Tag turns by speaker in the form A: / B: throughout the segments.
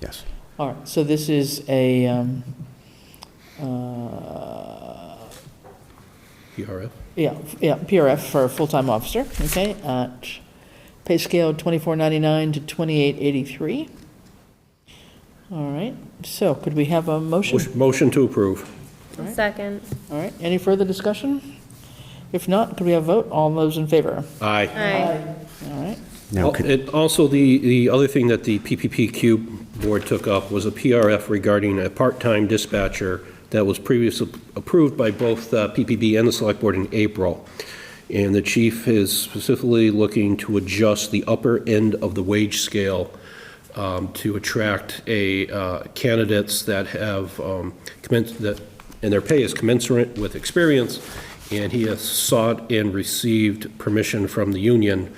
A: Yes.
B: All right, so this is a, um, uh,
C: PRF?
B: yeah, yeah, PRF for a full-time officer, okay, at pay scale 2499 to 2883. All right, so could we have a motion?
C: Motion to approve.
B: Right.
D: Second.
B: All right, any further discussion? If not, could we have a vote? All those in favor?
C: Aye.
D: Aye.
B: All right,
A: Now, could-
C: And also, the, the other thing that the PPPQ board took up was a PRF regarding a part-time dispatcher that was previously approved by both uh, PPB and the select board in April. And the chief is specifically looking to adjust the upper end of the wage scale um, to attract a, uh, candidates that have um, commenced, that, and their pay is commensurate with experience. And he has sought and received permission from the union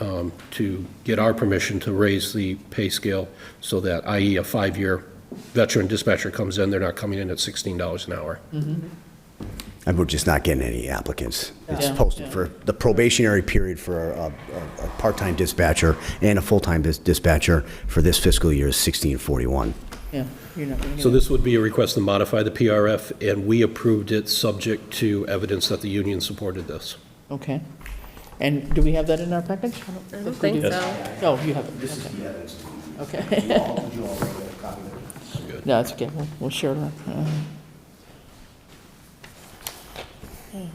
C: um, to get our permission to raise the pay scale so that, i.e., a five-year veteran dispatcher comes in, they're not coming in at $16 an hour.
B: Mm-hmm.
A: and we're just not getting any applicants. It's
B: Yeah.
A: posted for the probationary period for a, a, a part-time dispatcher and a full-time dis- dispatcher for this fiscal year is 1641.
B: yeah, you're not going to...
C: So this would be a request to modify the PRF, and we approved it subject to evidence that the union supported this.
B: Okay. And do we have that in our package?
D: I don't think so.
B: No, Oh, you haven't, okay. Okay. No, it's okay, we'll, we'll share that. Uh, okay.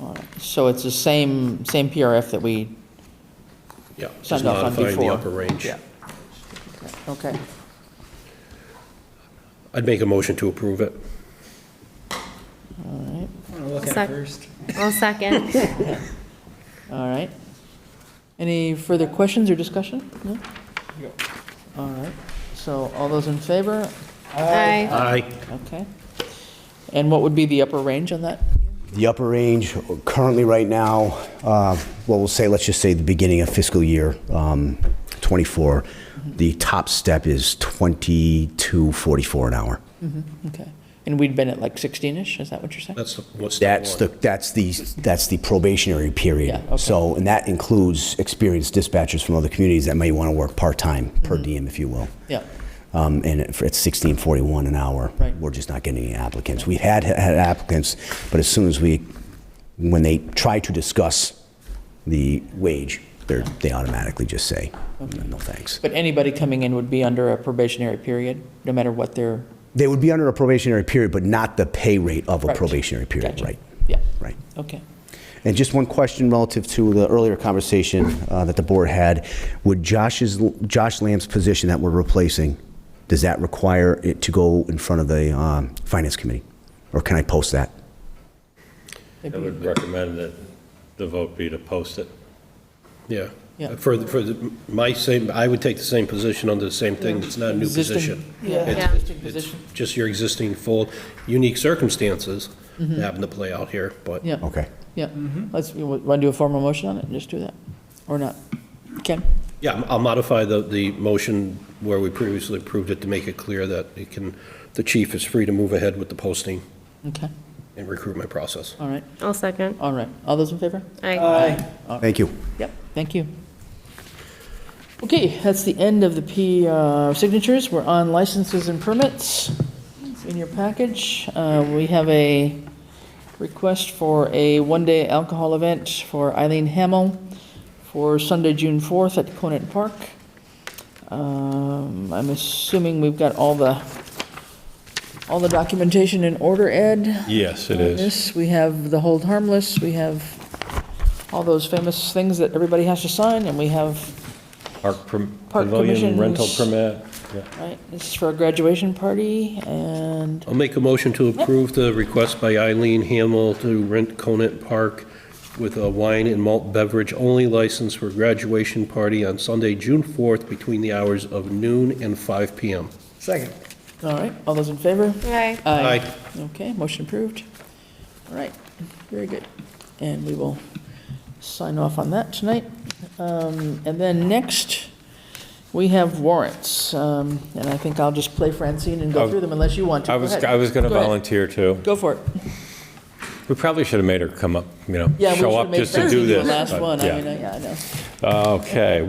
B: All right, So it's the same, same PRF that we,
C: Yeah, just
B: Signed off on
C: modifying the
B: before.
C: upper range.
B: okay.
C: I'd make a motion to approve it.
E: Look at
D: Sec-
E: it first.
D: I'll second.
B: All right. Any further questions or discussion? No? All right, so all those in favor?
D: Aye.
C: Aye.
B: Okay. And what would be the upper range on that?
A: The upper range currently right now, uh, well, we'll say, let's just say the beginning of fiscal year um, '24, the top step is 2244 an hour.
B: Okay. And we'd been at like 16-ish, is that what you're saying?
C: That's the- what's step
A: That's
C: one.
A: the, that's the, that's the probationary period.
B: Yeah, okay.
A: So, and that includes experienced dispatchers from other communities that may want to work part-time, per
B: Mm-hmm.
A: diem, if you will.
B: Yeah,
A: Um, And it- it's 1641 an hour.
B: Right.
A: We're just not getting any applicants. We had had applicants, but as soon as we, when they try to discuss the wage, they're, they automatically just say, no thanks.
B: but anybody coming in would be under a probationary period, no matter what their,
A: They would be under a probationary period, but not the pay rate of a
B: Right.
A: probationary period,
B: Gotcha.
A: right?
B: yeah,
A: Right.
B: okay.
A: And just one question relative to the earlier conversation uh, that the board had. Would Josh's, Josh Lamb's position that we're replacing, does that require it to go in front of the um, Finance Committee? Or can I post that?
F: I would recommend that the vote be to post it.
C: Yeah.
B: Yeah.
C: For, the- for the- my same, I would take the same position on the same thing. It's not a new
B: Existing-
C: position.
B: Yeah,
D: Yeah.
B: existing position,
C: just your existing full, unique circumstances that happen to play out here, but
B: yeah,
A: Okay.
B: yeah. Let's, want to do a formal motion on it, and just do that, or not? Ken?
C: yeah, I'll modify the, the motion where we previously approved it to make it clear that it can, the chief is free to move ahead with the posting
B: Okay,
C: and recruitment process.
B: all right,
D: I'll second.
B: all right. All those in favor?
D: Aye.
A: Thank you.
B: Yep, thank you. Okay, that's the end of the P, uh, signatures. We're on licenses and permits in your package. Uh, We have a request for a one-day alcohol event for Eileen Hamel for Sunday, June 4th at Conant Park. Um, I'm assuming we've got all the, all the documentation in order, Ed?
F: Yes, it
B: on
F: is.
B: this. We have the hold harmless, we have all those famous things that everybody has to sign, and we have,
F: Park prom-
B: Park
F: pavilion rental
B: commissions.
F: permit. Yeah.
B: right, this is for a graduation party, and,
C: I'll make a motion to approve the request by Eileen Hamel to rent Conant Park with a wine and malt beverage only license for graduation party on Sunday, June 4th, between the hours of noon and 5 PM.
E: Second.
B: all right, all those in favor?
D: Aye.
C: Aye.
B: Okay, motion approved. All right, very good. And we will sign off on that tonight. Um, And then next, we have warrants, Um, and I think I'll just play Francine and go
F: Oh,
B: through them unless you want to.
F: I
B: Go
F: was,
B: ahead.
F: I was going to
B: Go ahead.
F: volunteer too.
B: Go for it.
F: We probably should have made her come up, you know,
B: Yeah, we
F: show
B: should've
F: up
B: made
F: just to
B: Francine
F: do
B: do the
F: this.
B: Last
F: but
B: one, I
F: yeah.
B: mean, I- yeah, I know.
F: Okay,